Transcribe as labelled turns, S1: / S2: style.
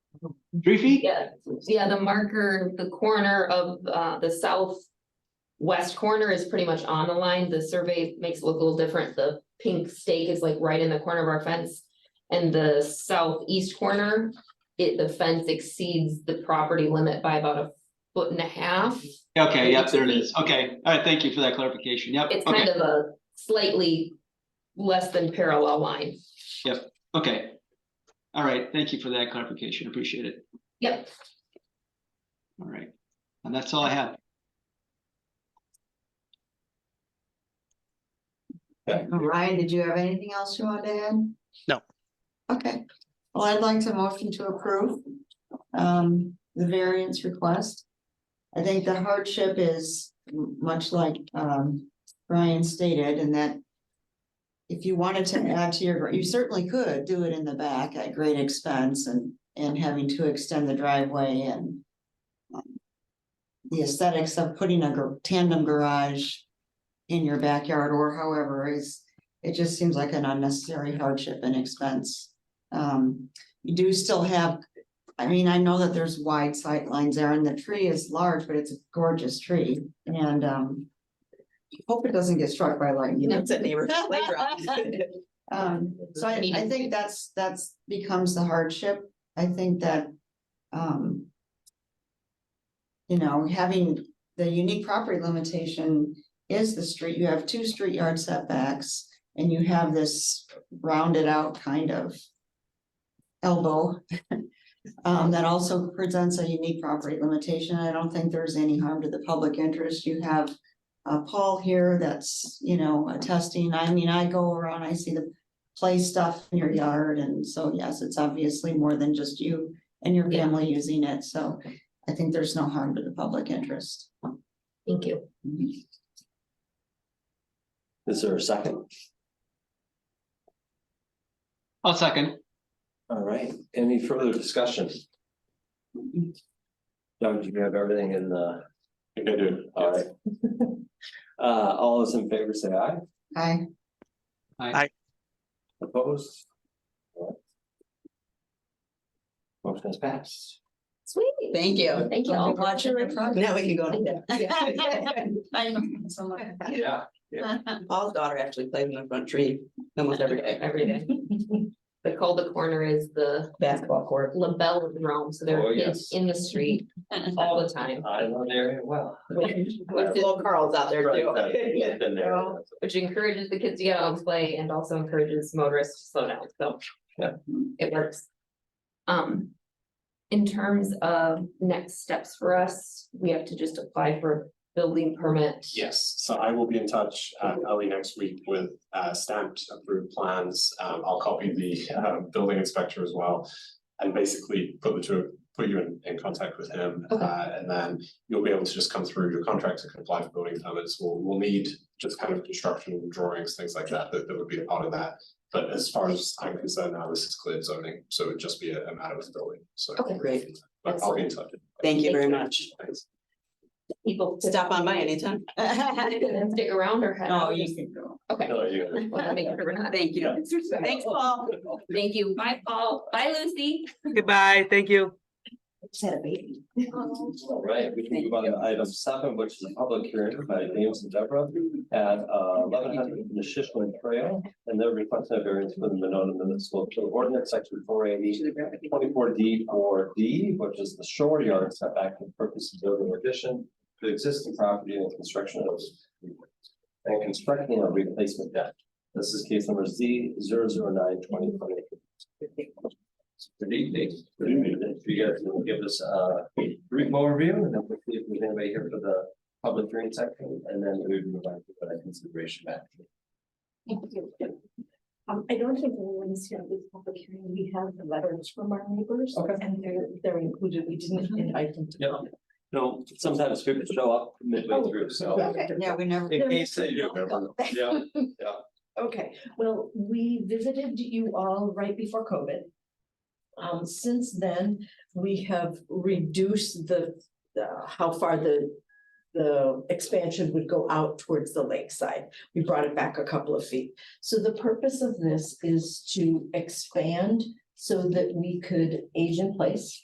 S1: Three feet?
S2: Yeah, yeah, the marker, the corner of uh the south. West corner is pretty much on the line. The survey makes it look a little different. The pink stake is like right in the corner of our fence. And the southeast corner, it, the fence exceeds the property limit by about a foot and a half.
S1: Okay, yep, there it is. Okay, all right, thank you for that clarification. Yep,
S2: It's
S1: okay,
S2: kind of a slightly less than parallel line.
S1: okay. All right, thank you for that clarification. Appreciate it.
S2: Yep.
S1: All right, and that's all I have.
S3: Ryan, did you have anything else you wanted to add?
S4: No.
S3: Okay, well, I'd like to motion to approve um the variance request. I think the hardship is m- much like um Ryan stated and that. If you wanted to add to your, you certainly could do it in the back at great expense and and having to extend the driveway and. um, The aesthetics of putting a gar- tandem garage in your backyard or however is, it just seems like an unnecessary hardship and expense. Um, you do still have, I mean, I know that there's wide sight lines there and the tree is large, but it's a gorgeous tree and, um. Hope it doesn't get struck by lightning.
S2: No.
S5: It's a neighborhood playground.
S3: Um, so I, I
S2: Meeting.
S3: think that's, that's becomes the hardship. I think that, um. You know, having the unique property limitation is the street, you have two street yard setbacks and you have this rounded out kind of. Elbow. Um, that also presents a unique property limitation. I don't think there's any harm to the public interest. You have uh, Paul here that's, you know, attesting. I mean, I go around, I see the play stuff in your yard. And so, yes, it's obviously more than just you and your
S2: Yeah.
S3: family using it. So I think there's no harm to the public interest.
S2: Thank you.
S6: Is there a second?
S1: I'll second.
S6: All right, any further discussion? Doug, do you have everything in the? I do. All right. Uh, all those in favor say aye,
S3: Aye.
S6: opposed? All right. Motion is passed.
S2: Sweet.
S5: Thank you.
S2: Thank you all.
S3: Watching the progress.
S5: Now we can go to bed.
S3: I know, someone-
S6: Yeah.
S5: Paul's daughter actually plays in the front tree almost every day.
S2: Every day. They call the corner is the
S5: Basketball court.
S2: labellum roam, so there
S6: Oh,
S2: are kids
S6: yes.
S2: in the street all the time,
S6: I know the area well.
S5: Little Carl's out there too.
S6: Been there.
S2: which encourages the kids to get out and play and also encourages motorists to slow down, so.
S6: Yeah.
S2: It works. Um, in terms of next steps for us, we have to just apply for a building permit.
S7: Yes, so I will be in touch uh, early next week with uh, stamped approved plans. Um, I'll copy the uh, building inspector as well. And basically put the two, put you in, in contact with him.
S2: Okay.
S7: Uh, And then you'll be able to just come through your contractor can apply for building permits. We'll, we'll need just kind of construction drawings, things like that, that, that would be a part of that. But as far as I'm concerned now, this is cleared zoning, so it'd just be a a matter of building, so.
S2: Okay,
S5: great.
S7: But I'll be in touch.
S5: Thank you very much.
S7: Thanks.
S2: People to
S5: Stop on by anytime.
S2: stick around or head
S3: No,
S2: out.
S3: Oh, you can go.
S2: Okay.
S6: Oh, No, you.
S2: Well, that makes sure we're not-
S5: Thank you. Thanks, Paul.
S2: Thank you. Bye, Paul. Bye, Lucy.
S4: Goodbye, thank you.
S3: Just had a baby.
S2: Um,
S6: All right, we can move on to item seven, which is a public hearing by James and Deborah at uh, eleven hundred Neshishman Trail. And they're requesting a variance for the Monona Municipal Code Ordinance, section four eighty, twenty-four D or D, which is the shore yard setback for purposes of an addition to existing property and construction of and constructing a replacement deck. This is case number Z 009 Good evening. Good evening. If you guys will give us uh, a brief overview and then we'll see if there's anybody here for the public hearing section and then we move on to the consideration action.
S8: Thank you. Um, I don't think anyone's here at this public hearing. We have the letters from our neighbors.
S6: Okay.
S8: And they're, they're included. We didn't invite them to.
S6: Yeah.
S8: come. Oh,
S6: No, sometimes people show up midway through, so.
S8: Okay.
S3: Yeah, we never.
S6: In case they do. Yeah.
S8: Okay, well, we visited you all right before COVID. Um, since then, we have reduced the, the- how far the, the expansion would go out towards the lakeside. We brought it back a couple of feet. So the purpose of this is to expand so that we could age in place